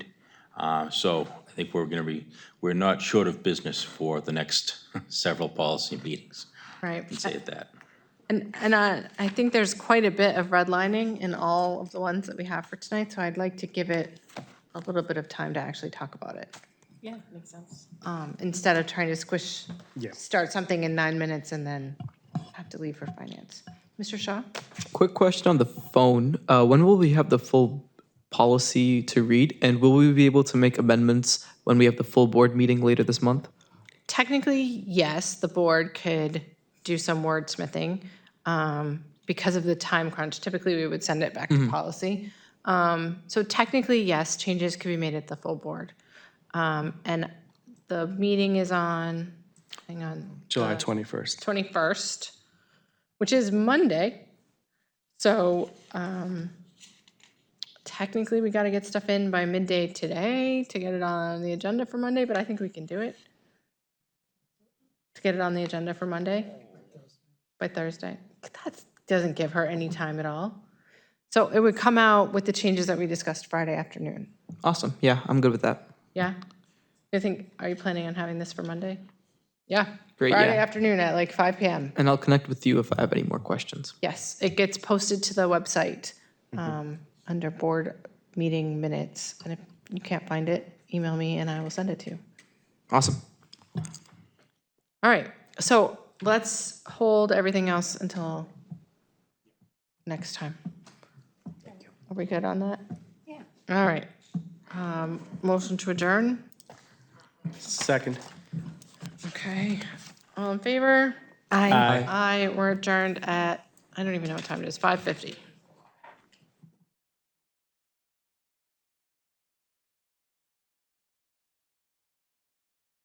Uh, So I think we're going to be, we're not short of business for the next several policy meetings, Right. say it that. And, and I, I think there's quite a bit of redlining in all of the ones that we have for tonight, so I'd like to give it a little bit of time to actually talk about it. Yeah, makes sense. um, Instead of trying to squish, Yeah. start something in nine minutes and then have to leave for finance. Mr. Shaw? Quick question on the phone. Uh, when will we have the full policy to read? And will we be able to make amendments when we have the full board meeting later this month? Technically, yes, the board could do some wordsmithing. um, Because of the time crunch, typically we would send it back to policy. Um, So technically, yes, changes could be made at the full board. Um, And the meeting is on, hang on, July 21st. 21st, which is Monday. So um, technically, we got to get stuff in by midday today to get it on the agenda for Monday, but I think we can do it. To get it on the agenda for Monday by Thursday. That doesn't give her any time at all. So it would come out with the changes that we discussed Friday afternoon. Awesome. Yeah, I'm good with that. Yeah? I think, are you planning on having this for Monday? Yeah. Great, Friday yeah. afternoon at like 5 PM. And I'll connect with you if I have any more questions. Yes, it gets posted to the website um, under board meeting minutes. And if you can't find it, email me and I will send it to you. Awesome. All right, so let's hold everything else until next time. Are we good on that? Yeah. All right. Um, Motion to adjourn? Second. Okay. All in favor? Aye. Aye, we're adjourned at, I don't even know what time it is, 5:50.